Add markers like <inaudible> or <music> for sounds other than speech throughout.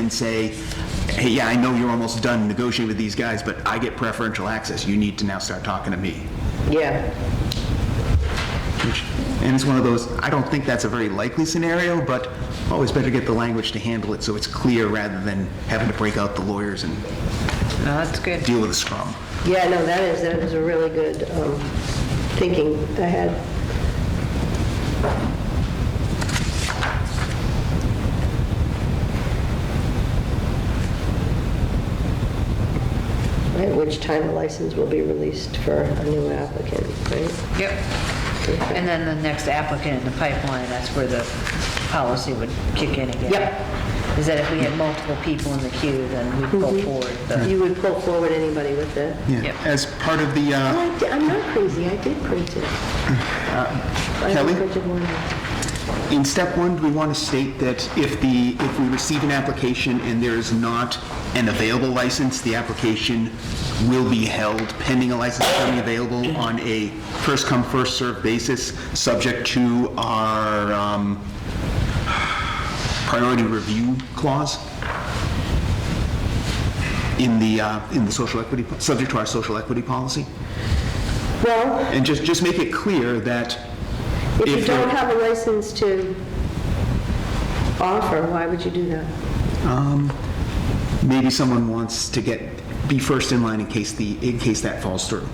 and say, hey, yeah, I know you're almost done negotiating with these guys, but I get preferential access, you need to now start talking to me. Yeah, And it's one of those, I don't think that's a very likely scenario, but always better get the language to handle it so it's clear rather than having to break out the lawyers and no, that's good. deal with a scrum. Yeah, no, that is, that is a really good um, thinking I had. At which time a license will be released for a new applicant, right? Yep. And then the next applicant in the pipeline, that's where the policy would kick in again. Yep. Is that if we had multiple people in the queue, then we'd pull forward the, You would pull forward anybody with that? Yeah, Yep. as part of the, Oh, uh, I di- I'm not crazy, I did print it. I Kelly? printed one. in step one, do we want to state that if the, if we receive an application and there is not an available license, the application will be held pending a license becoming available on a first-come, first-served basis, subject to our um, priority review clause? in the, uh, in the social equity, subject to our social equity policy? Well... And just, just make it clear that If you if there- don't have a license to offer, why would you do that? maybe someone wants to get, be first in line in case the, in case that falls through.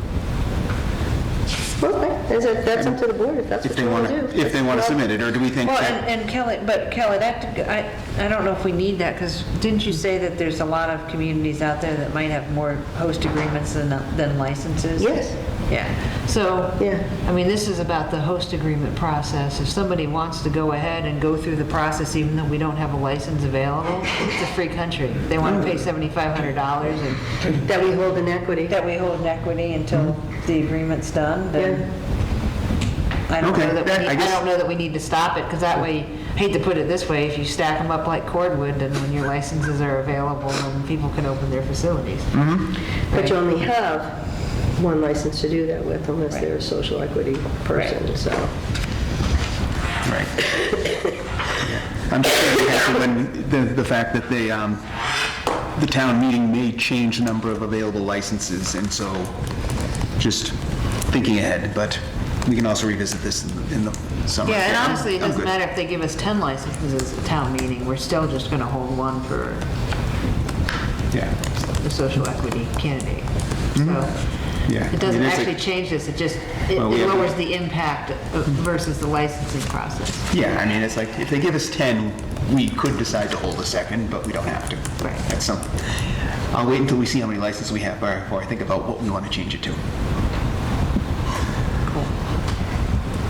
Well, that's a- that's up to the board, if that's If what they you want want to do. to, if they want to submit it, or do we think well, that... and and Kelly, but Kelly, that, I, I don't know if we need that, because didn't you say that there's a lot of communities out there that might have more host agreements than, than licenses? Yes. Yeah, so, Yeah. I mean, this is about the host agreement process. If somebody wants to go ahead and go through the process, even though we don't have a license available, it's a free country. They want to pay $7,500 and That we hold in equity. that we hold in equity until Mm. the agreement's done, then I don't Okay, know that that- we need, I I guess- don't know that we need to stop it, because that way, I hate to put it this way, if you stack them up like cordwood, then when your licenses are available, then people can open their facilities. Mm-hmm. But you only have one license to do that with unless they're a social equity person, so. Right. I'm just thinking actually when, the, the fact that they, um, the town meeting may change the number of available licenses, and so just thinking ahead, but we can also revisit this in the- in the summer. Yeah, and honestly, it I'm doesn't good. matter if they give us 10 licenses at town meeting, we're still just going to hold one for Yeah. the social equity candidate. So Mm-hmm. Yeah. it doesn't I mean, it's a- actually change this, it just, it it Well, we have to- lowers the impact uh, versus the licensing process. Yeah, I mean, it's like, if they give us 10, we could decide to hold a second, but we don't have to. Right. That's something. I'll wait until we see how many licenses we have before I think about what we want to change it to.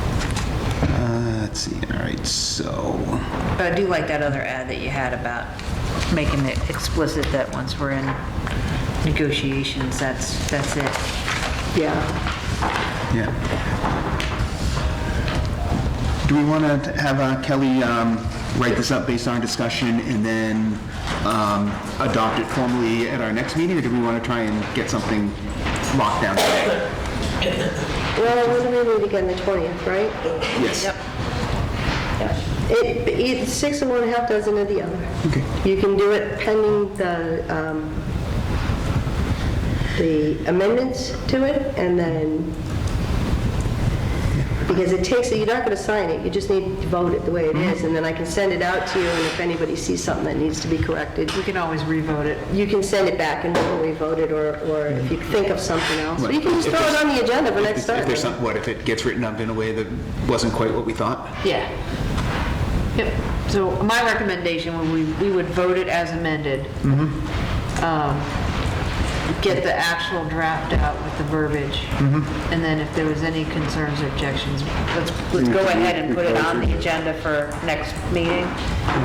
Uh, Let's see, all right, so, But I do like that other ad that you had about making it explicit that once we're in negotiations, that's, that's it. Yeah, yeah. Do we want to have uh, Kelly um, write this up based on our discussion and then um, adopt it formally at our next meeting? Or do we want to try and get something locked down today? well, what do we meet again, the 20th, right? Yes. It, it's six of one, half dozen of the other. Okay. You can do it pending the, um, the amendments to it, and then, because it takes, you're not gonna sign it, you just need to vote it the way it is, and then I can send it out to you, and if anybody sees something that needs to be corrected, We can always revote it. you can send it back and we'll re-vote it, or, or if you think of something else, or you can just throw it on the agenda for next If there's time. some, what if it gets written up in a way that wasn't quite what we thought? Yeah. Yep. So my recommendation, when we, we would vote it as amended. Um, Get the actual draft out with the verbiage. And then if there was any concerns or objections, let's, let's go Mm-hmm. ahead and put it on the agenda for next meeting.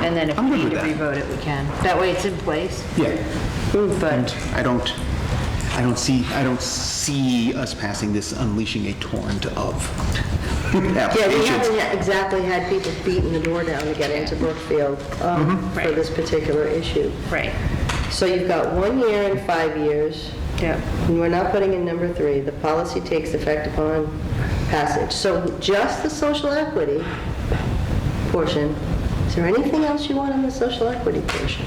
And then if I'm we good need to with revote it, we can. That way it's in place. Yeah. But I don't, I don't see, I don't see us passing this unleashing a torrent of <laughs> Yeah, we applications. haven't ha- exactly had people beating the door down to get into Brookfield, um, for Right. this particular issue. Right, So you've got one year and five years, yeah. and we're not putting in number three, the policy takes effect upon passage. So just the social equity portion, is there anything else you want on the social equity portion?